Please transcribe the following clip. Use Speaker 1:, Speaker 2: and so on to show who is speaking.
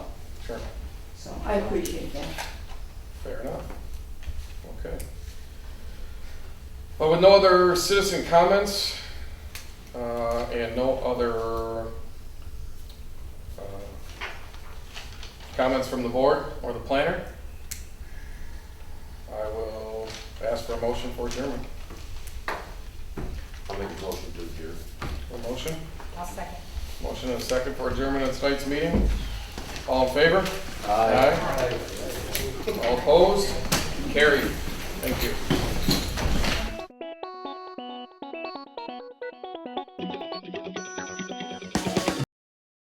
Speaker 1: Sure,
Speaker 2: So I appreciate that.
Speaker 1: fair enough. Okay. But with no other citizen comments, uh, and no other, uh, comments from the board or the planner, I will ask for a motion for adjournment.
Speaker 3: I'll make a motion to adjourn.
Speaker 1: A motion?
Speaker 4: I'll second.
Speaker 1: Motion and a second for adjournment of tonight's meeting. All in favor? Aye. All opposed? Carried. Thank you.